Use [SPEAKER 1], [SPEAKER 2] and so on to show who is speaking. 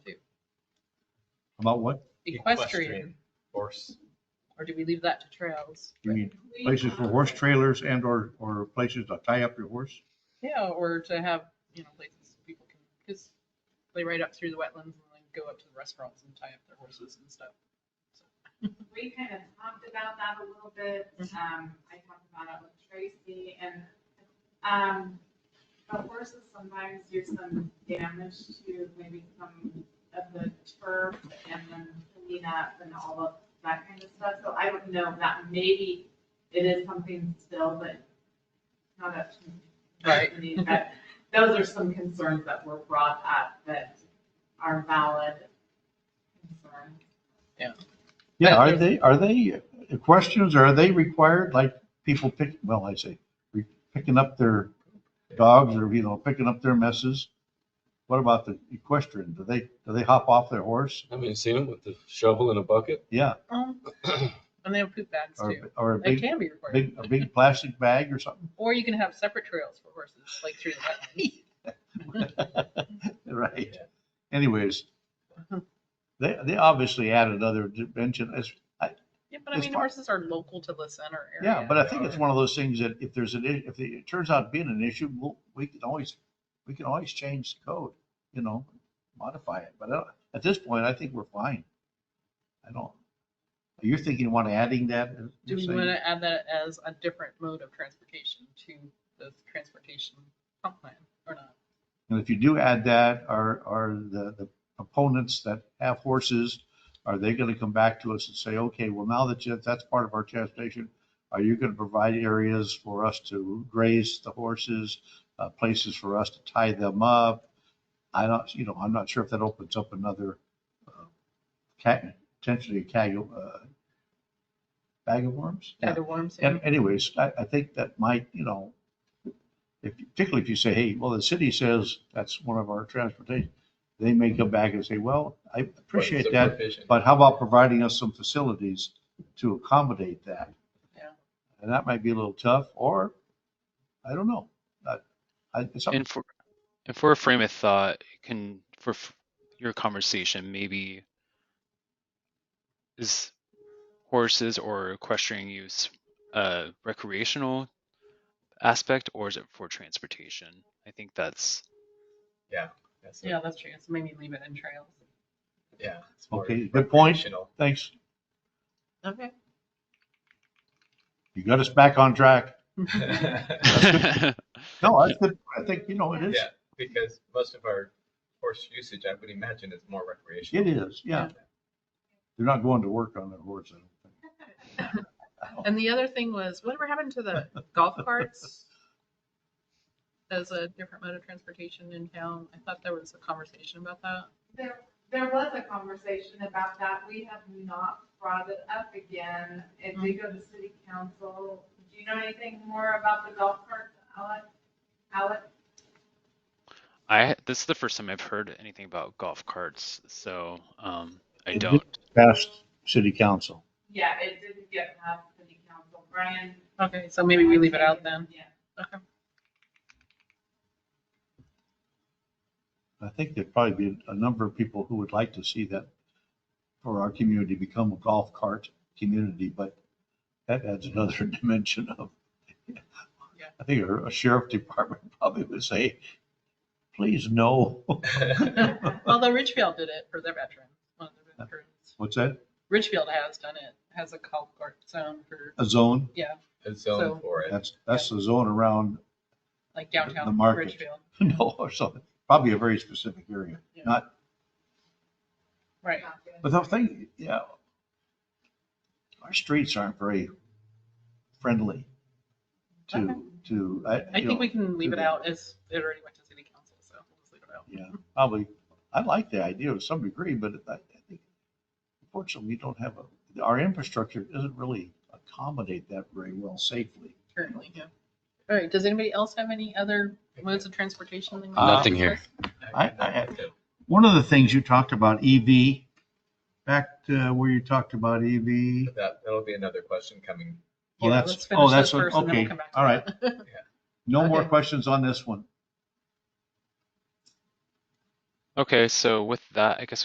[SPEAKER 1] About what?
[SPEAKER 2] equestrian,
[SPEAKER 3] Horse.
[SPEAKER 2] or do we leave that to trails?
[SPEAKER 1] You mean places
[SPEAKER 4] Um,
[SPEAKER 1] for horse trailers and or, or places to tie up your horse?
[SPEAKER 2] Yeah, or to have, you know, places people can, because they ride up through the wetlands and then go up to the restaurants and tie up their horses and stuff.
[SPEAKER 4] We kind of talked about that a little bit. Um, I talked about it with Tracy and, um, the horses sometimes do some damage to maybe some of the turf and then clean up and all of that kind of stuff. So I don't know if that maybe it is something still, but not up to
[SPEAKER 2] Right.
[SPEAKER 4] Anthony. But those are some concerns that were brought up that are valid concerns.
[SPEAKER 1] Yeah, are they, are they, the questions, are they required, like people pick, well, I say, re- picking up their dogs or, you know, picking up their messes? What about the equestrian? Do they, do they hop off their horse?
[SPEAKER 5] I mean, seen them with the shovel and a bucket.
[SPEAKER 1] Yeah,
[SPEAKER 2] Um, And they have poop bags
[SPEAKER 1] or,
[SPEAKER 2] too.
[SPEAKER 1] or a
[SPEAKER 2] They
[SPEAKER 1] big,
[SPEAKER 2] can be required.
[SPEAKER 1] big, a big plastic bag or something,
[SPEAKER 2] Or you can have separate trails for horses, like through the
[SPEAKER 1] right? Anyways,
[SPEAKER 2] Uh-huh.
[SPEAKER 1] they, they obviously added other dimension, it's,
[SPEAKER 2] wetlands. Yeah, but I
[SPEAKER 1] It's
[SPEAKER 2] mean,
[SPEAKER 1] fine.
[SPEAKER 2] horses are local to the center area.
[SPEAKER 1] Yeah, but I think it's one of those things that if there's an, i- if it turns out being an issue, we'll, we can always, we can always change the code, you know, modify it. But uh, at this point, I think we're fine. I don't, you're thinking, you want adding that? uh,
[SPEAKER 2] Do
[SPEAKER 1] you're
[SPEAKER 2] we
[SPEAKER 1] saying-
[SPEAKER 2] want to add that as a different mode of transportation to the transportation comp plan or not?
[SPEAKER 1] And if you do add that, are, are the, the opponents that have horses, are they gonna come back to us and say, okay, well, now that you, that's part of our transportation, are you gonna provide areas for us to graze the horses, uh, places for us to tie them up? I don't, you know, I'm not sure if that opens up another, uh, cat, potentially a cag, uh, bag of worms?
[SPEAKER 2] Kind of warms it.
[SPEAKER 1] And anyways, I, I think that might, you know, if, particularly if you say, hey, well, the city says that's one of our transportation, they may come back and say, well, I appreciate that, but how about providing us some facilities to accommodate that?
[SPEAKER 2] Yeah.
[SPEAKER 1] And that might be a little tough, or, I don't know. I- I, it's up-
[SPEAKER 6] And for, and for a frame of thought, can, for f- your conversation, maybe is horses or equestrian use a recreational aspect or is it for transportation? I think that's,
[SPEAKER 2] Yeah, that's true. So maybe leave it in trails.
[SPEAKER 3] Yeah.
[SPEAKER 1] Okay, good point.
[SPEAKER 3] Recreational.
[SPEAKER 1] thanks,
[SPEAKER 2] Okay.
[SPEAKER 1] you got us back on track.
[SPEAKER 6] yeah,
[SPEAKER 1] No, I think, I think, you know, it is,
[SPEAKER 3] Yeah, because most of our horse usage, I would imagine, is more recreational.
[SPEAKER 1] it is, yeah. They're not going to work on their horse, I don't think.
[SPEAKER 2] And the other thing was, whatever happened to the golf carts? As a different mode of transportation in town, I thought there was a conversation about that.
[SPEAKER 4] There, there was a conversation about that. We have not brought it up again. It did go to city council. Do you know anything more about the golf cart, Alex? Alex?
[SPEAKER 6] I, this is the first time I've heard anything about golf carts, so, um, I
[SPEAKER 1] It did-
[SPEAKER 6] don't.
[SPEAKER 1] Past city council.
[SPEAKER 4] Yeah, it didn't get past city council. Brian?
[SPEAKER 2] Okay, so maybe we leave it out then.
[SPEAKER 4] Yeah.
[SPEAKER 2] Okay.
[SPEAKER 1] I think there'd probably be a number of people who would like to see that for our community become a golf cart community, but that adds
[SPEAKER 2] Mm-hmm.
[SPEAKER 1] another dimension of, I think a sheriff department probably would say, please no.
[SPEAKER 2] Although Ridgefield did it for their veterans, one of their veterans.
[SPEAKER 1] What's that?
[SPEAKER 2] Ridgefield has done it, has a golf cart zone for,
[SPEAKER 1] A zone?
[SPEAKER 2] yeah,
[SPEAKER 3] A
[SPEAKER 2] So-
[SPEAKER 3] zone for it.
[SPEAKER 1] That's, that's the zone around,
[SPEAKER 2] like
[SPEAKER 1] The
[SPEAKER 2] downtown
[SPEAKER 1] market.
[SPEAKER 2] Ridgefield.
[SPEAKER 1] no, or something, probably a very specific area.
[SPEAKER 2] Right.
[SPEAKER 1] But the thing, yeah, our streets aren't very friendly
[SPEAKER 2] Okay.
[SPEAKER 1] to, to. I
[SPEAKER 2] Uh-huh. I
[SPEAKER 1] you
[SPEAKER 2] think
[SPEAKER 1] know,
[SPEAKER 2] we can leave it out as it already went to city council, so we'll just leave it out.
[SPEAKER 1] Yeah, probably. I like the idea to some degree, but I I think unfortunately, we don't have a, our infrastructure doesn't really accommodate that very well safely.
[SPEAKER 2] currently, yeah. All right, does anybody else have any other modes of transportation? they wanna
[SPEAKER 1] Nothing
[SPEAKER 2] discuss?
[SPEAKER 1] I- I- One of the things you talked about EV, back to where you talked about EV.
[SPEAKER 3] That, that'll be another question coming.
[SPEAKER 1] Well,
[SPEAKER 2] Yeah,
[SPEAKER 1] that's-
[SPEAKER 2] let's
[SPEAKER 1] oh,
[SPEAKER 2] finish
[SPEAKER 1] that's
[SPEAKER 2] this
[SPEAKER 1] what-
[SPEAKER 2] first and then we'll
[SPEAKER 1] okay,
[SPEAKER 2] come back to
[SPEAKER 1] all right.
[SPEAKER 2] that.
[SPEAKER 1] No more
[SPEAKER 2] Okay.
[SPEAKER 1] questions on this one.
[SPEAKER 6] Okay, so with that, I guess